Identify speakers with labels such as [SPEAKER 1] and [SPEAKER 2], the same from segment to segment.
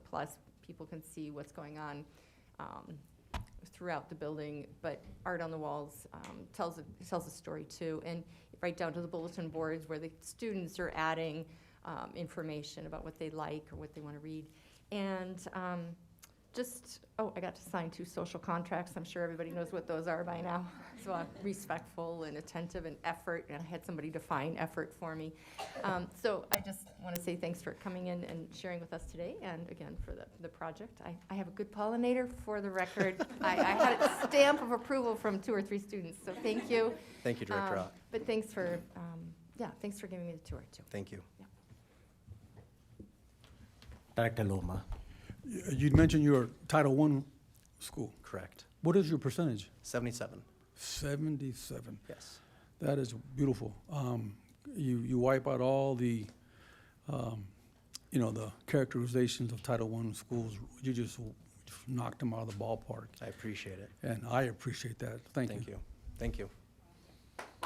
[SPEAKER 1] plus people can see what's going on um, throughout the building. But art on the walls um, tells, a- tells a story too. And right down to the bulletin boards where the students are adding um, information about what they like or what they want to read. And um, just, oh, I got to sign two social contracts. I'm sure everybody knows what those are by now. So I'm respectful and attentive and effort, and I had somebody define effort for me. Um, So I just want to say thanks for coming in and sharing with us today, and again, for the, the project. I, I have a good pollinator for the record. I, I had a stamp of approval from two or three students, so thank you.
[SPEAKER 2] Thank you, Director
[SPEAKER 1] Um,
[SPEAKER 2] Ott.
[SPEAKER 1] But thanks for, um, yeah, thanks for giving me the tour, too.
[SPEAKER 2] Thank you.
[SPEAKER 3] Director Loma.
[SPEAKER 4] Y- You'd mentioned your Title I school.
[SPEAKER 2] Correct.
[SPEAKER 4] What is your percentage?
[SPEAKER 2] 77,
[SPEAKER 4] Seventy-seven.
[SPEAKER 2] yes.
[SPEAKER 4] That is beautiful. Um, you, you wipe out all the, um, you know, the characterizations of Title I schools. You just w- knocked them out of the ballpark,
[SPEAKER 2] I appreciate it.
[SPEAKER 4] and I appreciate that. Thank you.
[SPEAKER 2] Thank you. Thank you.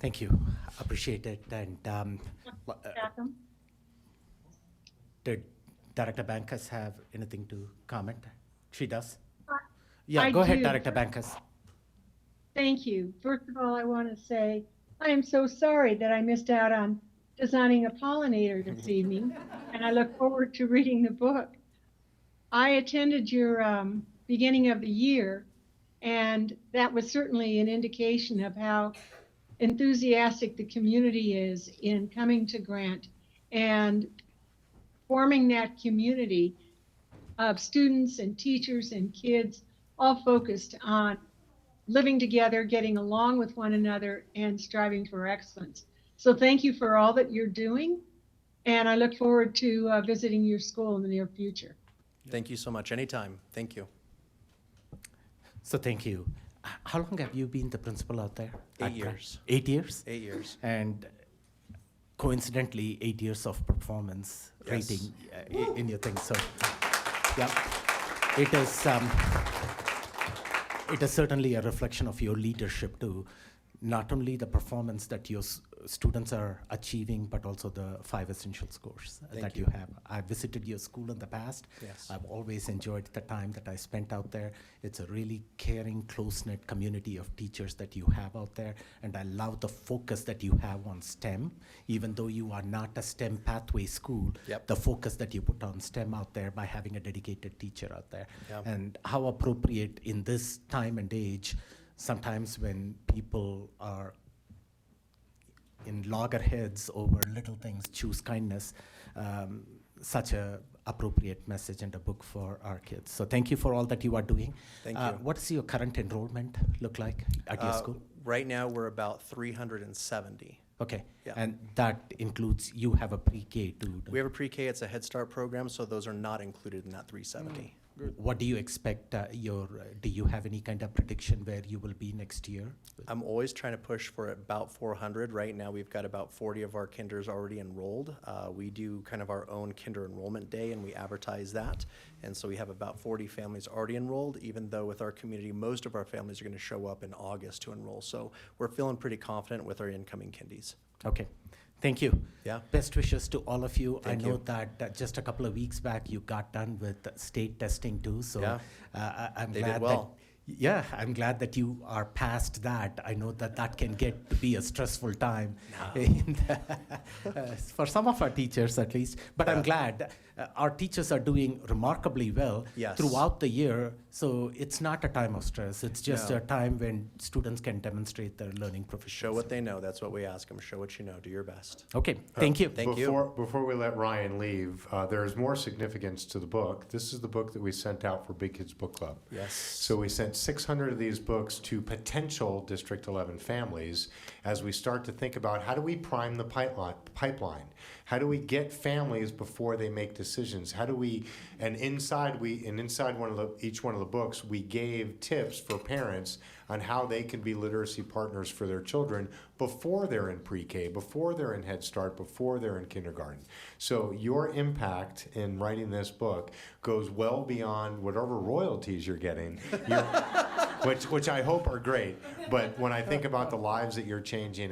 [SPEAKER 3] Thank you. Appreciate it. And um,
[SPEAKER 2] L- uh,
[SPEAKER 3] did Director Bankus have anything to comment? She does?
[SPEAKER 5] I-
[SPEAKER 3] Yeah,
[SPEAKER 5] I
[SPEAKER 3] go ahead,
[SPEAKER 5] do.
[SPEAKER 3] Director Bankus.
[SPEAKER 5] Thank you. First of all, I want to say I am so sorry that I missed out on designing a pollinator this evening, and I look forward to reading the book. I attended your um, beginning of the year, and that was certainly an indication of how enthusiastic the community is in coming to Grant and forming that community of students and teachers and kids all focused on living together, getting along with one another, and striving for excellence. So thank you for all that you're doing, and I look forward to uh, visiting your school in the near future.
[SPEAKER 2] Thank you so much. Anytime. Thank you.
[SPEAKER 3] So thank you. H- How long have you been the principal out there?
[SPEAKER 2] Eight
[SPEAKER 3] at Grant?
[SPEAKER 2] years.
[SPEAKER 3] Eight years?
[SPEAKER 2] Eight years.
[SPEAKER 3] And coincidentally, eight years of performance
[SPEAKER 2] Yes.
[SPEAKER 3] rating uh, i- in your thing. So, yeah, it is. Um, it is certainly a reflection of your leadership too. Not only the performance that your s- students are achieving, but also the five essential scores
[SPEAKER 2] Thank
[SPEAKER 3] that
[SPEAKER 2] you.
[SPEAKER 3] you. have. I visited your school in the past.
[SPEAKER 2] Yes.
[SPEAKER 3] I've always enjoyed the time that I spent out there. It's a really caring, close knit community of teachers that you have out there. And I love the focus that you have on STEM. Even though you are not a STEM pathway school,
[SPEAKER 2] Yep.
[SPEAKER 3] the focus that you put on STEM out there by having a dedicated teacher out there.
[SPEAKER 2] Yeah.
[SPEAKER 3] And how appropriate in this time and age, sometimes when people are in loggerheads over little things, choose kindness. Um, such a appropriate message and a book for our kids. So thank you for all that you are doing.
[SPEAKER 2] Thank
[SPEAKER 3] Uh,
[SPEAKER 2] you.
[SPEAKER 3] What does your current enrollment look like at your
[SPEAKER 2] Uh,
[SPEAKER 3] school?
[SPEAKER 2] Right now, we're about 370.
[SPEAKER 3] Okay,
[SPEAKER 2] yeah.
[SPEAKER 3] and that includes you have a pre-K too.
[SPEAKER 2] We have a pre-K, it's a Head Start program, so those are not included in that 370.
[SPEAKER 3] What do you expect? Uh, your do you have any kind of prediction where you will be next year?
[SPEAKER 2] I'm always trying to push for about 400. Right now, we've got about 40 of our kinders already enrolled. Uh, we do kind of our own kinder enrollment day and we advertise that. And so we have about 40 families already enrolled, even though with our community, most of our families are going to show up in August to enroll. So we're feeling pretty confident with our incoming kindies.
[SPEAKER 3] Okay. Thank you.
[SPEAKER 2] Yeah.
[SPEAKER 3] Best wishes to all of you.
[SPEAKER 2] Thank
[SPEAKER 3] I know
[SPEAKER 2] you.
[SPEAKER 3] that uh, just a couple of weeks back you got done with state testing too. So
[SPEAKER 2] Yeah.
[SPEAKER 3] uh, I, I'm
[SPEAKER 2] They did
[SPEAKER 3] glad
[SPEAKER 2] well.
[SPEAKER 3] that yeah, I'm glad that you are past that. I know that that can get to be a stressful time in the- uh, for some of our teachers at least. But I'm glad uh, our teachers are doing remarkably well
[SPEAKER 2] Yes.
[SPEAKER 3] throughout the year. So it's not a time of stress. It's just
[SPEAKER 2] No.
[SPEAKER 3] a time when students can demonstrate their learning proficiency.
[SPEAKER 2] Show what they know. That's what we ask them. Show what you know. Do your best.
[SPEAKER 3] Okay, thank you.
[SPEAKER 2] Thank you.
[SPEAKER 6] before, Before we let Ryan leave, uh, there is more significance to the book. This is the book that we sent out for Big Kids Book Club.
[SPEAKER 2] Yes.
[SPEAKER 6] So we sent 600 of these books to potential District 11 families as we start to think about how do we prime the pipeline? pipeline? How do we get families before they make decisions? How do we, and inside we, and inside one of the, each one of those the books, we gave tips for parents on how they can be literacy partners for their children before they're in pre-K, before they're in Head Start, before they're in kindergarten. So your impact in writing this book goes well beyond whatever royalties you're getting. Your- which, which I hope are great, but when I think about the lives that you're changing